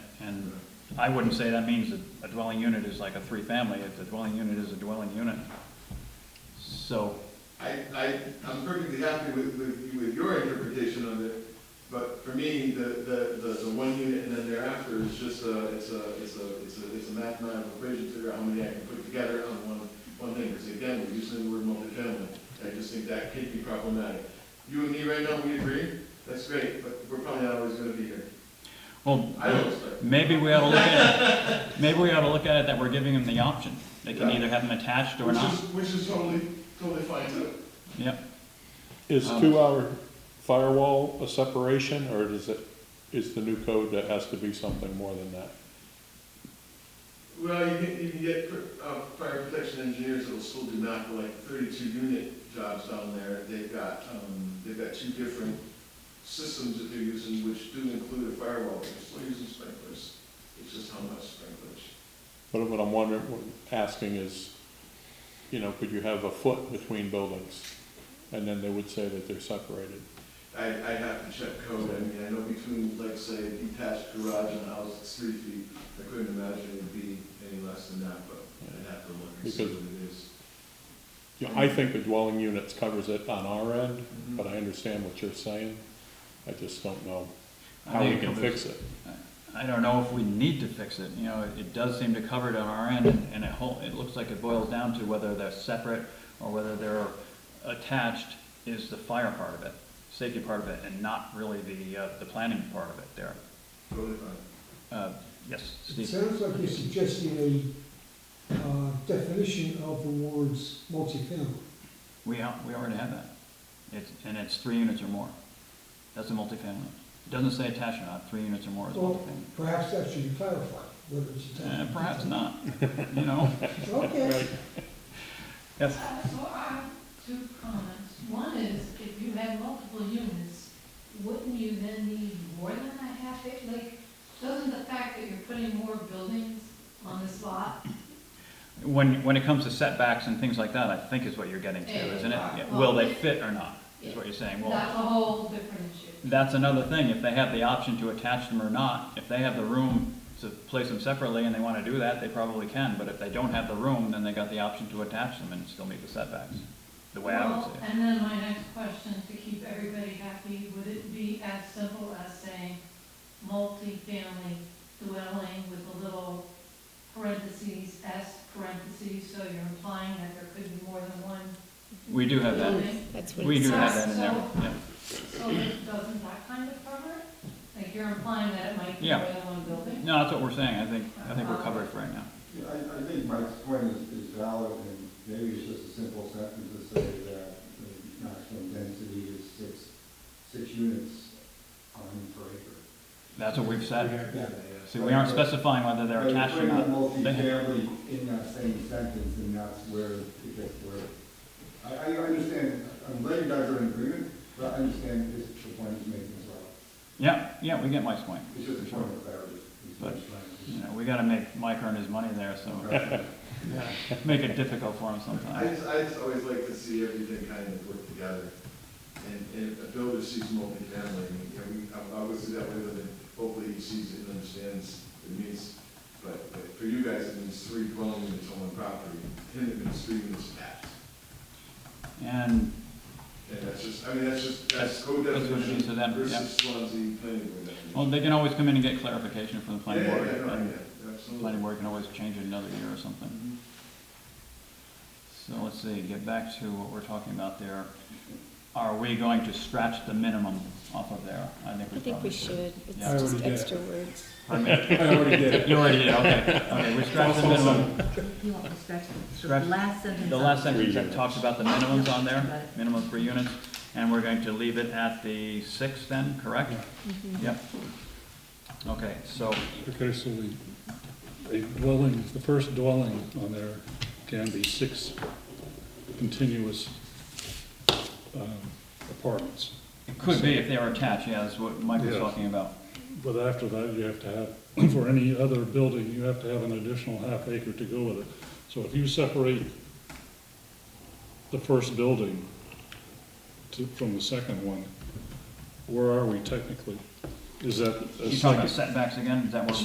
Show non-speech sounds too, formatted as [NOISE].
And I wouldn't say that means that a dwelling unit is like a three-family, if the dwelling unit is a dwelling unit. So, I, I, I'm perfectly happy with, with, with your interpretation of it, but for me, the, the, the, the one unit and then thereafter is just a, it's a, it's a, it's a, it's a mathematical equation to figure out how many I can put together on one, one thing, because again, we're using the word multifamily, and I just think that could be problematic. You and me right now, we agree, that's great, but we're probably not always gonna be here. well, I don't expect. maybe we ought to look at it, maybe we ought to look at it that we're giving them the option. They can Yeah. either have them attached or Which not. is, which is totally, totally fine too. Yep, Is Um, two-hour firewall a separation, or is it, is the new code that has to be something more than that? Well, you can, you can get, uh, fire protection engineers that'll still do not for like thirty-two unit jobs down there. They've got, um, they've got two different systems that they're using, which do include a firewall. They're still using sprinklers. It's just how much sprinklers. But what I'm wondering, what I'm asking is, you know, could you have a foot between buildings? And then they would say that they're separated. I, I'd have to check code. I mean, I know between, like, say, a detached garage and a house, it's three feet. I couldn't imagine it would be any less than that, but I'd have to look and see Because- what it is. You know, I think the dwelling units covers it on our end, but I understand what you're saying. I just don't know I how think we it can covers- fix it. I don't know if we need to fix it, you know, it does seem to cover it on our end, and- and it whole, it looks like it boils down to whether they're separate or whether they're attached is the fire part of it, safety part of it, and not really the, uh, the planning part of it there. Totally fine. Uh, yes, It Steve? sounds like you're suggesting a uh, definition of the words multifamily. We, al- we already have that. It's, and it's three units or more. That's a multifamily. It doesn't say attached or not, three units or more is Well, multifamily. perhaps that should be clarified, whether it's a Uh, town. perhaps not, you know? Okay, Yes, Uh, So I have two comments. One is, if you had multiple units, wouldn't you then need more than a half acre? Like, doesn't the fact that you're putting more buildings on this lot? when, when it comes to setbacks and things like that, I think is what you're getting to, isn't it? Yeah. Will they fit or not, is what you're saying. Well, That's a whole different issue. that's another thing, if they have the option to attach them or not, if they have the room to place them separately and they wanna do that, they probably can, but if they don't have the room, then they got the option to attach them and still meet the setbacks, the way I would Well, see it. And then my next question, to keep everybody happy, would it be as simple as saying multifamily dwelling with a little parentheses, S parentheses, so you're implying that there could be more than one We do have that, building? That's what we it do have says. that in there, yeah. So it doesn't that kind of cover it? Like you're implying that it might be Yeah. more than one building? No, that's what we're saying, I think, I think we're covered for right now. Yeah, I, I think Mike's point is, is valid, and maybe it's just a simple sentence to say that the maximum density is six, six units on per acre. That's what we've said. Yeah. See, we aren't specifying whether they're attached or not. But putting the They have- multifamily in that same sentence, and that's where it gets where, I, I understand, I'm glad you guys are in agreement, but I understand this, the point he's making as well. Yeah, yeah, we get Mike's point. It's just a point of clarity. is what he's You trying know, we gotta make Mike earn his money there, so to- [LAUGHS] [LAUGHS] Right. make it difficult for him I sometimes. just, I just always like to see everything kind of work together. And, and if a builder sees multifamily, I mean, can we, I- I would see that way, and hopefully he sees it and understands it means. But, but for you guys, it means three dwelling units on one property, and it means three units attached. And And that's just, I mean, that's just, that's That's- code that's what it means to definition them, yeah. versus Swansea planning board. definition. Well, they can always come in and get clarification from the Yeah, planning board. yeah, yeah, and yeah, the absolutely. Planning board can always change it another year or something. Mm-hmm. Mhm. So let's see, get back to what we're talking about there. Are we going to scratch the minimum off of there? I think I we think we probably should. It's Yeah. I just extra words. [LAUGHS] I already did it. You already did, okay. [LAUGHS] Okay, we scratched the minimum. You want me to scratch the Scratch- last sentence? The on last Three sentence that units. talks about the minimums on there, Right. minimum three units, and we're going to leave it at the six then, correct? Mm-hmm. Yep. Okay, so, Okay, so we, a dwelling, the first dwelling on there can be six continuous um, apartments. it could be if they were attached, yeah, that's what Mike was Yes. talking about. But after that, you have to have, for any other building, you have to have an additional half acre to go with it. So if you separate the first building to, from the second one, where are we technically? Is that a You talking second? about setbacks again, is that what?